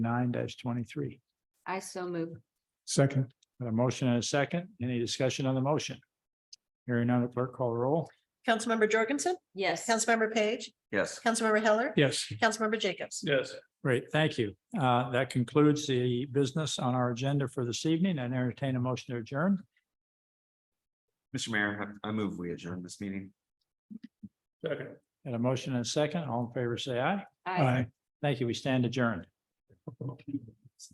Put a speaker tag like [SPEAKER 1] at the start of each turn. [SPEAKER 1] nine twenty-three.
[SPEAKER 2] I so move.
[SPEAKER 1] Second. Got a motion and a second. Any discussion on the motion? Hearing none, clerk call the roll.
[SPEAKER 3] Councilmember Jorgensen,
[SPEAKER 2] Yes.
[SPEAKER 3] Councilmember Page,
[SPEAKER 4] Yes.
[SPEAKER 3] Councilmember Heller,
[SPEAKER 1] Yes.
[SPEAKER 3] Councilmember Jacobs.
[SPEAKER 1] Yes. Great, thank you. Uh, that concludes the business on our agenda for this evening and entertain a motion to adjourn.
[SPEAKER 4] Mr. Mayor, I I move we adjourn this meeting.
[SPEAKER 1] Second. And a motion and a second. All in favor, say aye.
[SPEAKER 2] I
[SPEAKER 1] Thank you. We stand adjourned.